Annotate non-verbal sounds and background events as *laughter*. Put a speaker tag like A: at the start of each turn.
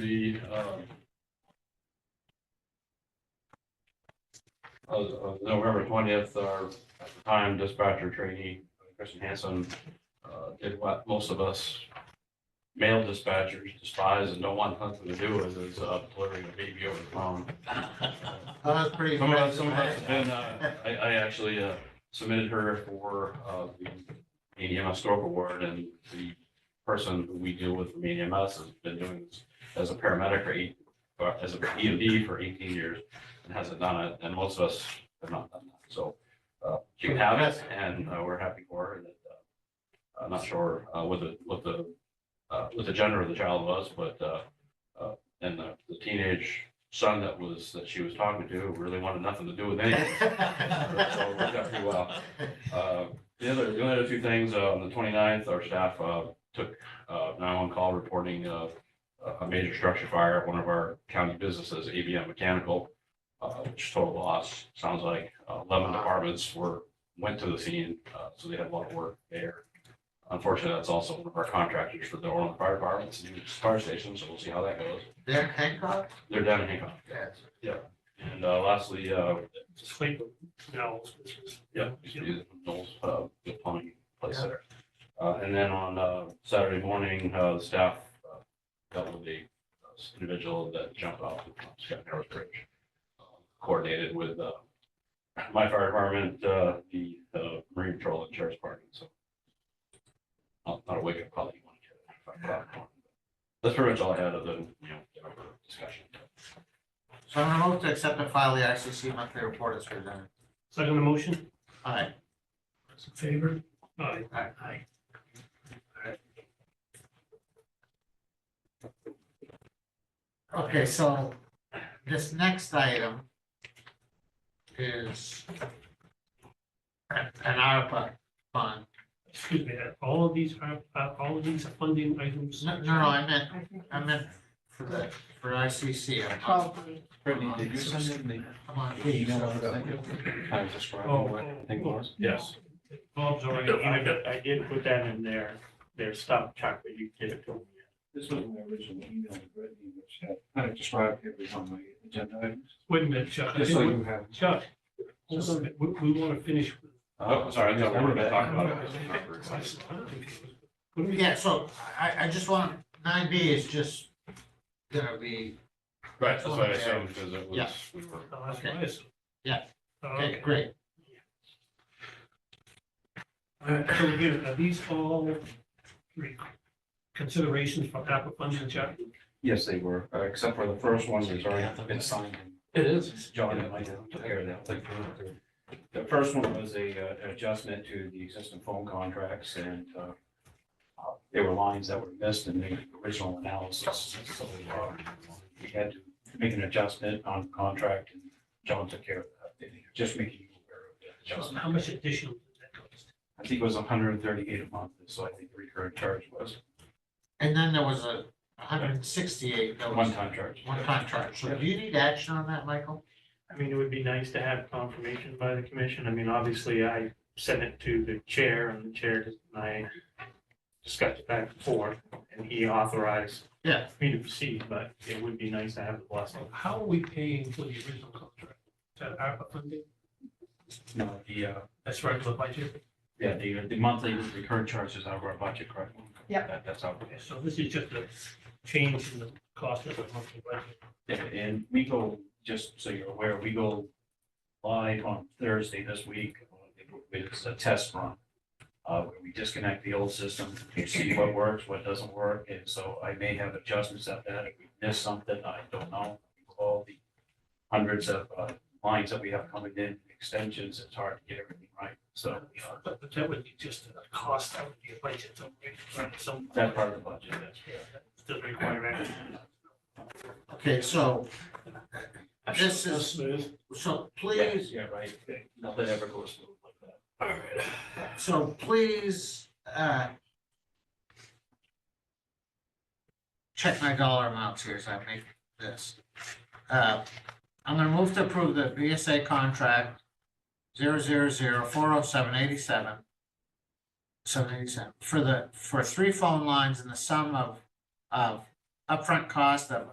A: the, um, of, of November twentieth, our at the time dispatcher trainee, Kristen Hanson, uh, did what most of us male dispatchers despise and don't want nothing to do with, is, uh, delivering a baby over the phone.
B: Oh, That's pretty.
A: Some of us,
B: impressive.
A: some of us have been, uh, I, I actually, uh, submitted her for, uh, the Maine EMS Stork Award and the person who we deal with from Maine EMS has been doing this as a paramedic for eight, or as a EMD for eighteen years and hasn't done it, and most of us have not done that, so, uh, she can have it, and, uh, we're happy for her, and, uh, I'm not sure, uh, what the, what the, uh, what the gender of the child was, but, uh, uh, and the the teenage son that was, that she was talking to really wanted nothing to do with anything. uh,
B: *laughs*
A: So it worked out pretty well. Uh, The other, the other two things, uh, on the 29th, our staff uh, took nine-one call reporting uh, a major structure fire at one of our county businesses, ABM Mechanical, uh, which total loss, sounds like uh, eleven departments were, went to the scene, uh, so they had a lot of work there. Unfortunately, that's also one of our contractors for the Orland Fire Department's new fire station, so we'll see how that goes.
B: They're Hancock?
A: They're down in Hancock.
B: Yes.
A: And uh, lastly, uh,
C: Sleep bells, which is.
A: Yeah, Knowles, uh, the plumbing place there. Uh, and then on, uh, Saturday morning, uh, the staff, uh, dealt with the uh, individual that jumped off the Scott Narrows Bridge. uh, Coordinated with, uh, my fire department, uh, the, uh, Marine Patrol and Sheriff's Department, so. Not, not a wake up call that you want to get. at 5:00 in the morning. That's pretty much all I had of the, you know, November discussion.
B: So I'm gonna move to accept and file the ICC monthly report as presented.
C: Second the motion,
B: Aye.
C: those in favor? Aye.
B: Aye.
C: Aye.
B: Okay, so this next item is an an ARPA fund.
C: Excuse me, uh, all of these are, uh, all of these are funding items.
B: No, no, I meant, I meant for the, for ICC. I'm on-
D: Probably.
E: Brittany, did you send in the
B: I'm on
E: the email
B: so-
E: that I sent you? Kind of
C: Oh,
E: describing what I think it was?
A: Yes.
C: Bob's
F: I
C: already,
F: did- I did put that in there, their stuff, Chuck, but you did it to me.
E: This was my original email to Brittany, which had kind of described every one of my agenda items.
C: wait a minute, Chuck, I
E: Just so
C: think,
E: you have.
C: Chuck, hold on a minute, we, we want to finish. with-
A: Oh, sorry, I think I wanted to talk about it.
C: What do we-
B: Yeah, so I, I just want, nine B is just gonna be,
A: Right, that's what I assumed, because it
B: Yeah.
A: was, we were
C: Oh, that's what I said.
B: Yeah.
C: Uh,
B: okay,
C: Okay,
B: great.
C: all right, so again, are these all re- considerations for ARPA funding, Chuck?
E: Yes, they were, uh, except for the first one, it's already been signed.
A: It is.
E: John and I took care of that. Like, uh, The first one was a, uh, adjustment to the existing phone contracts and, uh, uh, there were lines that were missed in the original analysis. So, uh, we had to make an adjustment on the contract and John took care of that, just making you aware of that
C: Chuck,
E: adjustment.
C: How much additional did that cost?
E: I think it was hundred and thirty-eight a month, so I think the recurring charge was
B: And then there was a hundred and sixty-eight, that was
E: one-time charge.
B: one contract. So do you need action on that, Michael?
F: I mean, it would be nice to have confirmation by the commission. I mean, obviously, I sent it to the chair and the chair and I discussed it back and forth and he authorized
B: Yeah.
F: me to proceed, but it would be nice to have the blessing.
C: How are we paying for the original contract? Is that ARPA funding?
E: No, the, uh,
C: That's right, the budget.
E: yeah, the, the monthly recurring charge is out of our budget, correct?
D: Yep.
E: That, that's out.
C: Okay, So this is just a change in the cost of the monthly budget.
E: Yeah, and we go, just so you're aware, we go live on Thursday this week. It's a test run. Uh, where we disconnect the old system, we see what works, what doesn't work, and so I may have adjustments at that. If we miss something, I don't know. All the hundreds of, uh, lines that we have coming in, extensions, it's hard to get everything right, so. uh,
C: But but that would be just a cost, that would be a budget, so we- so
E: That part of the budget, yes.
C: yeah, that doesn't require action.
B: Okay, so this is,
C: smooth.
B: so please,
E: Yeah, right. Nothing ever goes smooth like that.
C: All right.
B: so please, uh, check my dollar amounts here as I make this. Uh, I'm gonna move to approve the BSA contract zero zero zero four oh seven eighty-seven. Seven eighty-seven, for the, for three phone lines in the sum of, of upfront cost of